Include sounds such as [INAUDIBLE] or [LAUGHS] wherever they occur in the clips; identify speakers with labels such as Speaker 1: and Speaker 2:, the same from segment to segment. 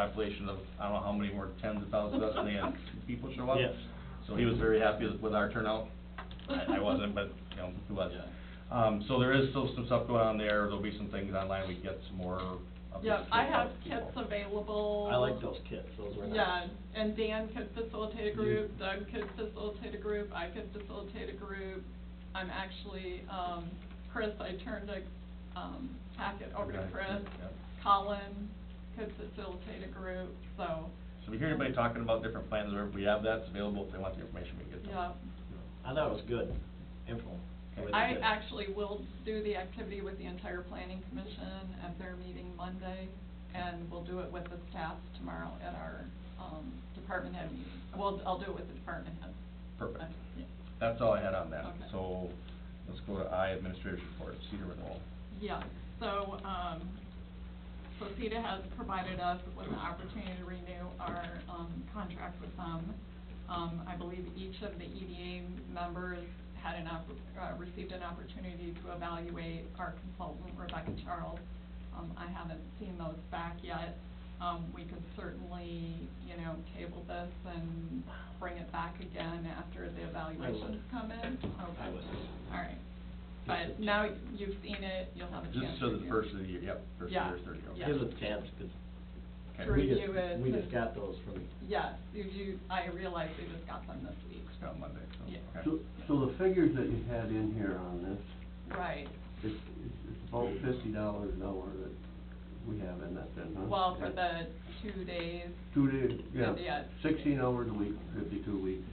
Speaker 1: population of, I don't know how many more tens of thousands of us, and they
Speaker 2: [LAUGHS]
Speaker 1: had two people show up.
Speaker 3: Yes.
Speaker 1: So he was very happy with our turnout. I, I wasn't, but, you know, he was. Um, so there is still some stuff going on there. There'll be some things online. We can get some more of this.
Speaker 2: Yeah, I have
Speaker 1: stuff.
Speaker 2: kits available.
Speaker 3: I like those kits, those were
Speaker 2: Yeah,
Speaker 3: nice.
Speaker 2: and Dan could
Speaker 1: Mm-hmm.
Speaker 2: facilitate a
Speaker 3: You-
Speaker 2: group, Doug could facilitate a group, I could facilitate a group. I'm actually, um, Chris, I turned a, um, packet over to
Speaker 1: Okay,
Speaker 2: Chris.
Speaker 1: yeah.
Speaker 2: Colin could facilitate a group, so,
Speaker 1: So if you hear anybody talking about different plans, or if we have that, it's available. If they want the information, we can get them.
Speaker 2: yeah.
Speaker 3: I thought it was good info. It was
Speaker 2: I
Speaker 3: good.
Speaker 2: actually will do the activity with the entire planning commission at their meeting Monday, and we'll do it with the staff tomorrow at our, um, department head meeting. Well, I'll do it with the department head.
Speaker 1: Perfect.
Speaker 2: Yeah.
Speaker 1: That's all I had on that.
Speaker 2: Okay.
Speaker 1: So let's go to I, administrator's report, Cedar Renewal.
Speaker 2: Yeah, so, um, so CETA has provided us with an opportunity to renew our, um, contract with them. Um, I believe each of the EDA members had an oppor- uh, received an opportunity to evaluate our consultant Rebecca Charles. Um, I haven't seen those back yet. Um, we could certainly, you know, table this and bring it back again after the evaluations come in. Okay.
Speaker 3: I would.
Speaker 2: All right. But now you've seen it, you'll have a
Speaker 1: This
Speaker 2: chance.
Speaker 1: is for
Speaker 2: to
Speaker 1: the
Speaker 2: do-
Speaker 1: first of the year, yep, first of the year,
Speaker 2: Yeah,
Speaker 1: thirty, okay.
Speaker 2: yeah.
Speaker 3: Give us a chance, 'cause
Speaker 1: Okay.
Speaker 2: To
Speaker 3: we just,
Speaker 2: review it.
Speaker 3: we just got those from,
Speaker 2: Yes, you, you, I realize we just got them this week.
Speaker 1: It's on Monday, so,
Speaker 2: Yeah.
Speaker 1: okay.
Speaker 4: So, so the figures that you had in here on this,
Speaker 2: Right.
Speaker 4: it's, it's it's about fifty dollars an hour that we have in that then, huh?
Speaker 2: Well, for the two days,
Speaker 4: Two days,
Speaker 2: Yeah.
Speaker 4: yeah, sixteen hours a week, fifty-two weeks,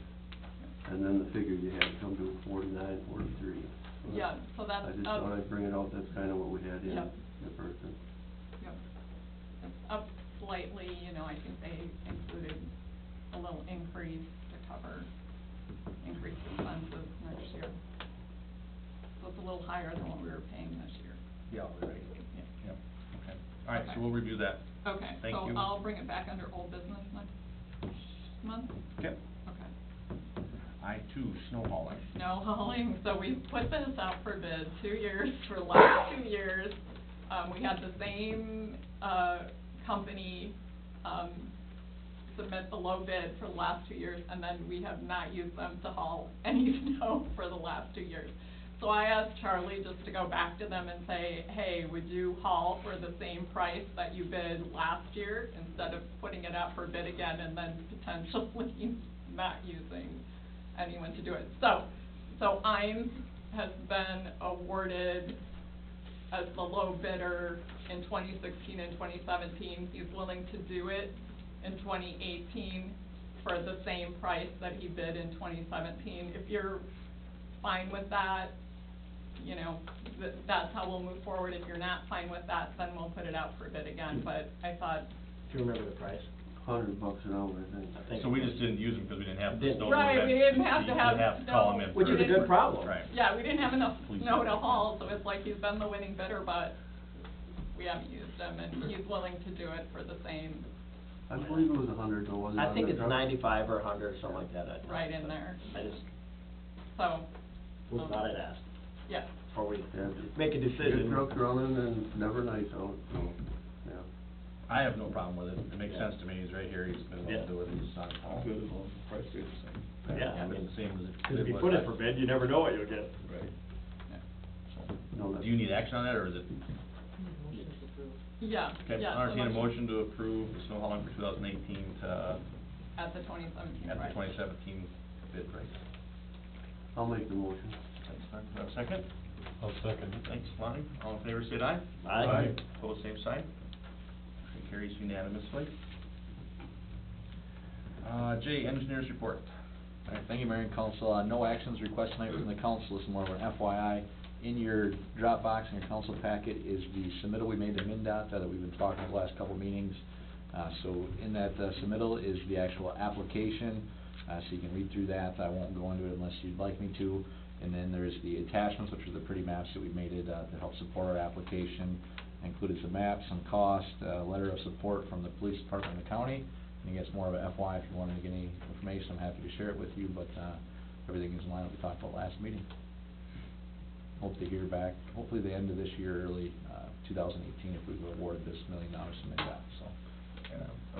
Speaker 4: and then the figure you had come to forty-nine, forty-three.
Speaker 2: yeah, so that's,
Speaker 4: I just
Speaker 2: up-
Speaker 4: thought I'd bring it out, that's kinda what we had in
Speaker 2: Yep.
Speaker 4: the first one.
Speaker 2: yep. It's up slightly, you know, I think they included a little increase to cover increased expenses next year. So it's a little higher than what we were paying this year.
Speaker 1: Yeah, all right,
Speaker 2: Yeah.
Speaker 1: yeah, okay. All right,
Speaker 2: Okay.
Speaker 1: so we'll review that.
Speaker 2: Okay,
Speaker 1: Thank
Speaker 2: so
Speaker 1: you.
Speaker 2: I'll bring it back under old business next month?
Speaker 1: Okay.
Speaker 2: Okay.
Speaker 1: I too, snow hauling.
Speaker 2: No hauling, so we put this out for bid two years, [LAUGHS] for the last two years. Um, we had the same, uh, company, um, submit the low bid for the last two years, and then we have not used them to haul [LAUGHS] any snow for the last two years. So I asked Charlie just to go back to them and say, hey, would you haul for the same price that you bid last year instead of putting it out for bid again and then potentially [LAUGHS] not using anyone to do it. So, so IMES has been awarded as the low bidder in 2016 and 2017. He's willing to do it in 2018 for the same price that he bid in 2017. If you're fine with that, you know, th- that's how we'll move forward. If you're not fine with that, then we'll put it out for bid
Speaker 1: Mm-hmm.
Speaker 2: again. But I thought,
Speaker 3: do you remember the price?
Speaker 4: Hundred bucks an hour, I think.
Speaker 3: I think
Speaker 1: So we
Speaker 3: it was-
Speaker 1: just didn't use them because we didn't have the
Speaker 3: Didn't.
Speaker 1: snow.
Speaker 2: Right, we didn't have to have
Speaker 1: You didn't have to call
Speaker 2: snow.
Speaker 1: them in.
Speaker 3: Which is a
Speaker 1: first.
Speaker 3: good problem.
Speaker 1: Right.
Speaker 2: yeah, we didn't have enough
Speaker 1: Please.
Speaker 2: snow to haul, so it's like he's been the winning bidder, but we haven't used him, and he's willing to do it for the same,
Speaker 4: I believe it was a hundred though, wasn't it?
Speaker 3: I think
Speaker 4: on the
Speaker 3: it's
Speaker 4: truck?
Speaker 3: ninety-five or a hundred, something like that. I-
Speaker 2: right in there.
Speaker 3: I just,
Speaker 2: So,
Speaker 3: was thought I'd ask
Speaker 2: yeah,
Speaker 3: before we
Speaker 4: Yeah.
Speaker 3: make a
Speaker 4: Good
Speaker 3: decision.
Speaker 4: truck running and never nice out, so, yeah.
Speaker 1: I have no problem with it. It makes
Speaker 3: Yeah.
Speaker 1: sense to me. He's right here. He's been willing to
Speaker 3: Yeah.
Speaker 1: do it. He's on call.
Speaker 5: Good as long as the price is
Speaker 1: So,
Speaker 3: Yeah, I
Speaker 1: It's
Speaker 3: mean,
Speaker 1: the same as if.
Speaker 3: Because if you put it for bid, you never know what you'll get.
Speaker 5: the same. Right.
Speaker 4: No,
Speaker 1: So,
Speaker 4: that's-
Speaker 1: Do you need action on that or is it?
Speaker 2: yeah,
Speaker 1: Okay,
Speaker 2: yeah.
Speaker 1: I'll entertain a motion to approve the snow hauling for two thousand eighteen to,
Speaker 2: At the twenty seventeen
Speaker 1: at
Speaker 2: price.
Speaker 1: the twenty seventeen bid price.
Speaker 4: I'll make the motion.
Speaker 1: Thanks, Mark. Do I have a second?
Speaker 5: I'll second
Speaker 1: Thanks, Lonnie. All in favor, say aye.
Speaker 3: Aye. Aye.
Speaker 1: Pose same sign. Motion carries unanimously. Uh, J, engineers report.
Speaker 6: All right, thank you, Mayor and Council. Uh, no actions requested tonight from the council, this is more of an FYI. In your Dropbox, in your council packet is the submittal we made to MinDOT that we've been talking about the last couple meetings. Uh, so in that uh, submittal is the actual application, uh, so you can read through that. I won't go into it unless you'd like me to. And then there's the attachments, which are the pretty maps that we made it, uh, to help support our application. Included some maps, some cost, a letter of support from the police department and the county. I think it's more of a FY, if you wanted to get any information, I'm happy to share it with you, but, uh, everything is in line with what we talked about last meeting. Hope to hear back, hopefully the end of this year, early, uh, two thousand eighteen, if we award this million dollars to MinDOT, so.
Speaker 1: Okay. Yeah.